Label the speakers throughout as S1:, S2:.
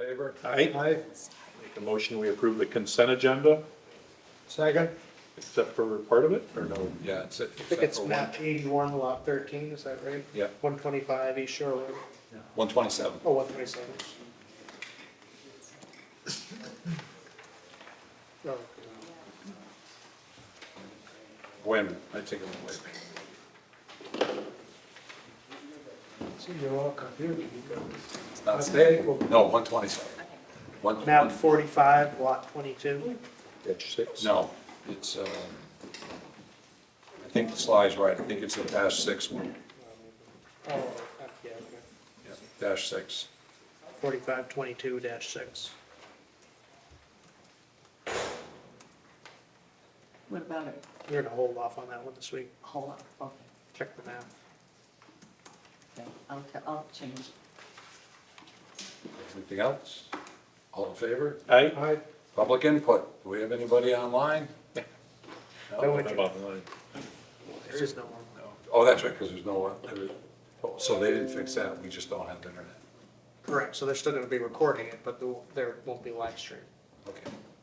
S1: Aye.
S2: Aye.
S1: Make a motion, we approve the consent agenda,
S2: Second.
S1: except for part of it, or no?
S3: Yeah, it's.
S4: I think it's map eighty-one, lot thirteen, is that right?
S3: Yeah.
S4: One twenty-five East Shore Road,
S3: One twenty-seven.
S4: oh, one twenty-seven. Oh,
S3: Wait a minute, I take it away.
S2: See, you're all confused.
S3: It's not staying. No, one twenty-seven. One,
S4: Map
S3: one,
S4: forty-five, lot twenty-two,
S1: Page six.
S3: no, it's, um, I think the slide's right. I think it's the dash six one,
S4: oh, okay, yeah, okay.
S3: Yeah, dash six.
S4: Forty-five, twenty-two dash six.
S5: What about it?
S4: We're gonna hold off on that one this week,
S5: Hold on, okay,
S4: check the map.
S5: okay, I'll, t- I'll change.
S3: Anything else? All in favor?
S1: Aye.
S2: Aye.
S3: Public input. Do we have anybody online?
S4: No
S1: How
S4: interest,
S1: about mine?
S4: there's just no one.
S3: Oh, that's right, because there's no, one. there is- oh, so they didn't fix that. We just don't have the internet.
S4: Correct, so they're still gonna be recording it, but there won't- there won't be live stream,
S3: Okay.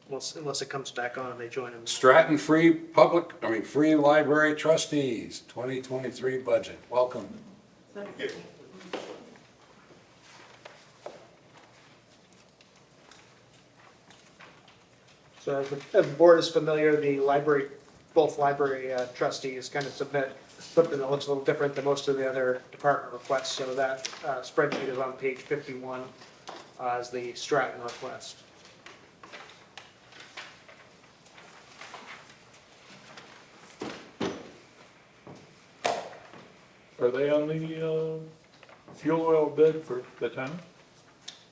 S4: unless, unless it comes back on and they join in.
S3: Stratton Free Public, I mean, Free Library Trustees, 2023 budget. Welcome.
S4: So as the, as the board is familiar, the library, both library uh, trustees kind of submit something that looks a little different than most of the other department requests. So that uh, spreadsheet is on page fifty-one uh, is the Stratton request.
S1: Are they on the, uh, fuel oil bid for the town?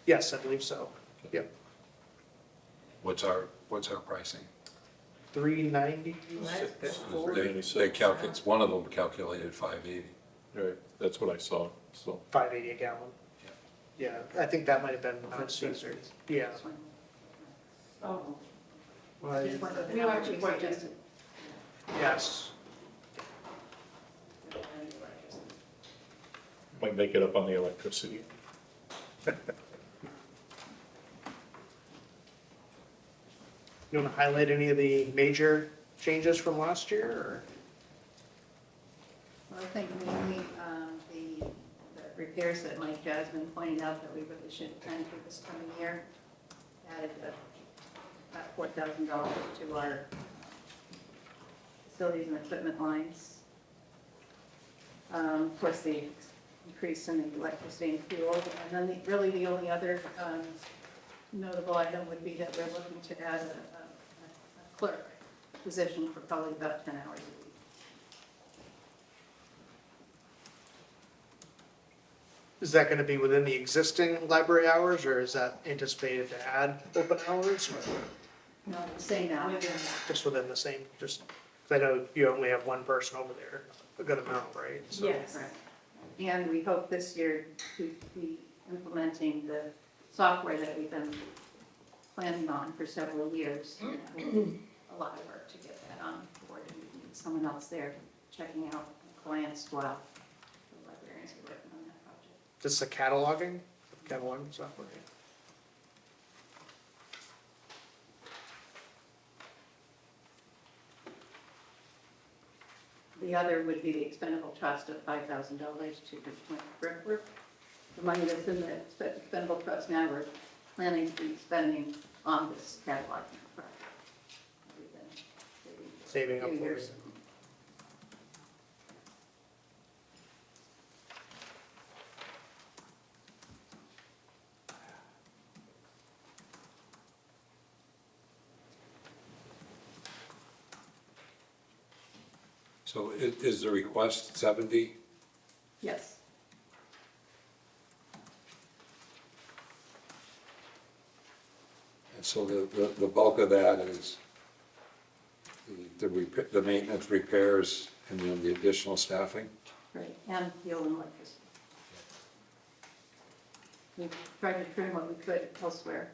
S4: Yes, I believe so. Yep,
S3: What's our, what's our pricing?
S4: three ninety.
S3: They they calculate, one of them calculated 580.
S1: Right, that's what I saw, so.
S4: Five eighty a gallon. Yeah, I think that might have been on Caesar. Yeah.
S5: Oh,
S4: Well,
S5: just one of the-
S6: We don't actually quite just-
S4: Yes.
S1: Might make it up on the electricity.
S4: You want to highlight any of the major changes from last year or?
S6: Well, I think mainly um, the the repairs that Mike Jasmine pointed out that we really shouldn't plan for this coming year added a- about four thousand dollars to our facilities and equipment lines. Um, Of course, the increase in the electricity and fuel, and then the- really the only other um, notable item would be that we're looking to add a- a- a clerk position for probably about ten hours a week.
S4: Is that gonna be within the existing library hours, or is that anticipated to add open hours, or
S6: No, say now.
S4: just within the same, just, 'cause I know you only have one person over there, a good amount, right? So-
S6: Yes. And we hope this year to be implementing the software that we've been planning on for several years. A lot of work to get that on board, and we need someone else there checking out clients while the librarians are working on that project.
S4: This is a cataloging, cataloging software.
S6: The other would be the expendable trust of five thousand dollars to the brickwork. The money that's in the expe- expendable trust now, we're planning to be spending on this catalog. project. We've been saving
S4: Saving
S6: for
S4: up
S6: a few
S4: for it.
S6: years.
S3: So i- is the request 70?
S6: Yes,
S3: And so the, the- the bulk of that is the- the, repa- the maintenance repairs and then the additional staffing?
S6: right, and fuel and electricity. We tried to trim what we could elsewhere.